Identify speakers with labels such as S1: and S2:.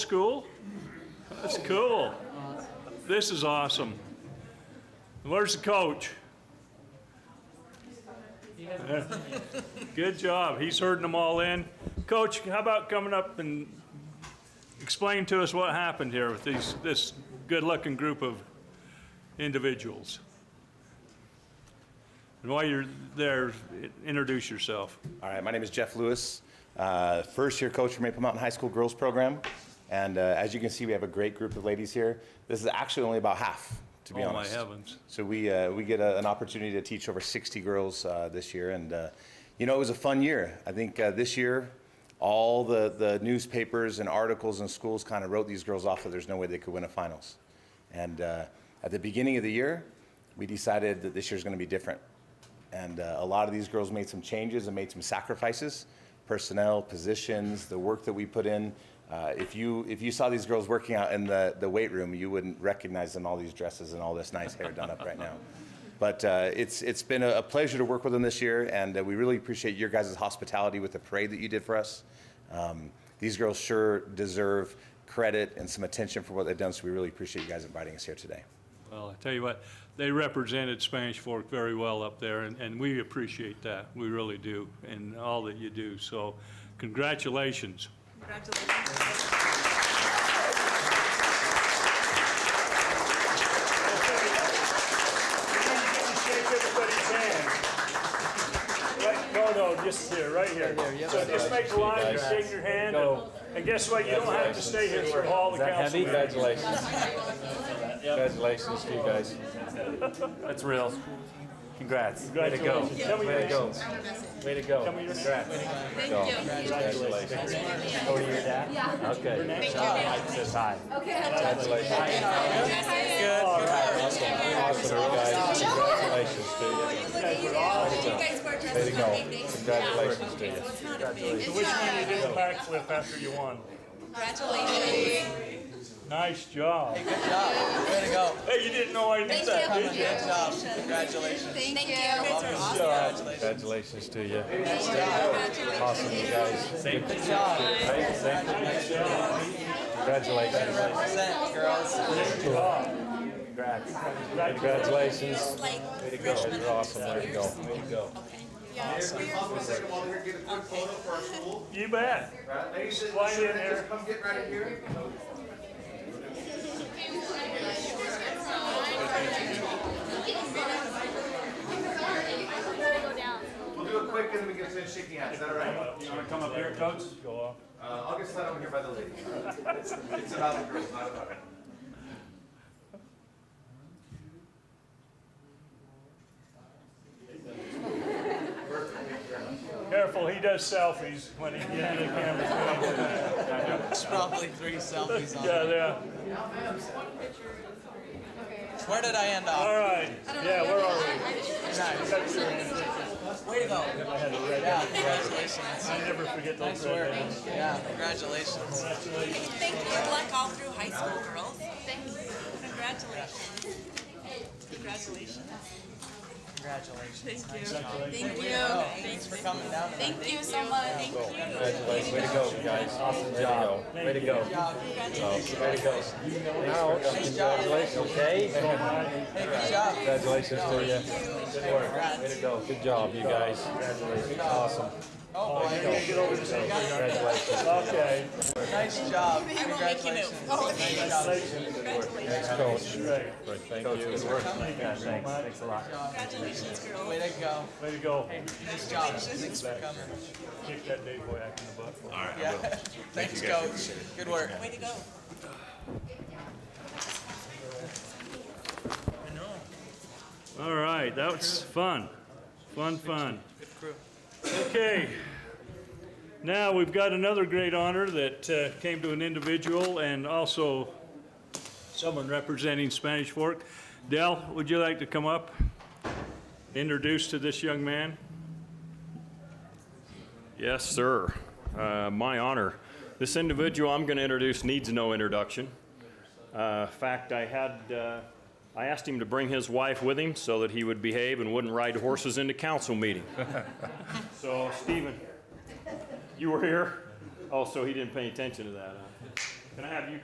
S1: school? That's cool. This is awesome. Where's the coach? Good job. He's herding them all in. Coach, how about coming up and explain to us what happened here with these, this good-looking group of individuals? And while you're there, introduce yourself.
S2: All right, my name is Jeff Lewis, uh, first year coach for Maple Mountain High School girls program. And uh, as you can see, we have a great group of ladies here. This is actually only about half, to be
S1: Oh, my
S2: honest.
S1: heavens.
S2: So we, uh, we get a, an opportunity to teach over 60 girls uh, this year. And, uh, you know, it was a fun year. I think uh, this year, all the, the newspapers and articles and schools kind of wrote these girls off that there's no way they could win a finals. And uh, at the beginning of the year, we decided that this year's going to be different. And uh, a lot of these girls made some changes and made some sacrifices personnel, positions, the work that we put in. Uh, if, you, if you saw these girls working out in the, the weight room, you wouldn't recognize them, all these dresses and all this nice hair done up right now. But uh, it's, it's been a, a pleasure to work with them this year, and uh, we really appreciate your guys' hospitality with the parade that you did for us. Um, these girls sure deserve credit and some attention for what they've done, so we really appreciate you guys inviting us here today.
S1: Well, I tell you what, they represented Spanish Fork very well up there, and, and we appreciate that. We really do, and all that you do. So congratulations.
S3: Congratulations.
S4: Shake everybody's hand. Right, no, no, just here, right here. So just make a line and shake your hand, and- and guess what, you don't have to stay here for all the council members.
S5: Congratulations. Congratulations to you guys. That's real. Congrats. Way to go.
S4: Congratulations. Tell me your
S5: Way to go. Way to go.
S4: Tell me your-
S5: Congrats.
S3: Thank you.
S5: Congratulations. Oh, you're dad? Yeah. Okay. Says hi. Awesome, guys. Congratulations to you.
S3: You guys were just
S5: Way to go. Congratulations to you.
S3: It's not a big.
S4: Wish me you did a backflip after you won.
S3: Congratulations.
S4: Nice job. Hey, good job. Way to go. Hey, you didn't know I knew
S3: Thank
S4: that, did you?
S3: you. Congratulations. Thank you. You guys are awesome.
S5: Congratulations to you.
S3: Congratulations.
S5: Awesome, you guys. Good job. Hey, thank you. Congratulations. Congrats. Congratulations.
S3: Like
S5: Way to go. You're awesome. Way to go. Way to go.
S4: You bet. Slide in there.
S2: We'll do it quick, and then we can finish shaking hands. Is that all right?
S4: You wanna come up here, coach? Go
S2: Uh, I'll get set over here by the ladies. It's about the girls, not about me.
S4: on. Careful, he does selfies when he gets the camera.
S6: There's probably three selfies on
S4: Yeah, yeah,
S6: it. Where did I end
S4: all
S6: up?
S4: right. Yeah, we're all right.
S6: Nice. Way to go. Yeah, congratulations.
S4: I never forget
S6: I
S4: those
S6: swear.
S4: red days.
S6: Yeah, congratulations.
S3: Thank you. Good luck all through high school, girls. Thank you. Congratulations. Congratulations.
S6: Congratulations.
S3: Thank you. Thank
S6: Thanks
S3: you.
S6: for coming down. tonight.
S3: Thank you so much. Thank you.
S5: Congratulations. Way to go, guys. Awesome job. Way to go. Way to go. Now, congratulations, okay?
S6: Hey, good job.
S5: Congratulations to you. Good work. Way to go. Good job, you guys. Awesome.
S6: Oh, boy.
S5: Congratulations.
S4: Okay,
S6: Nice job.
S3: I won't make you move.
S6: Congratulations.
S3: Oh,
S6: Nice job.
S5: Thanks, coach.
S4: great.
S5: Thank you. Good work. Thanks. Thanks a lot.
S3: Congratulations, girls.
S6: Way to go.
S4: Way to go.
S6: Nice job. Thanks for coming.
S4: Kick that day boy act in the butt.
S6: Yeah. Thanks, coach. Good work.
S3: Way to go.
S1: All right, that was fun. Fun, fun. Okay. Now, we've got another great honor that uh, came to an individual and also someone representing Spanish Fork. Dell, would you like to come up? Introduce to this young man?
S7: Yes, sir. Uh, My honor. This individual I'm going to introduce needs no introduction. Uh, In fact, I had, uh, I asked him to bring his wife with him so that he would behave and wouldn't ride horses into council meeting. So, Stephen, you were here? Oh, so he didn't pay attention to that, huh?
S1: Can I have you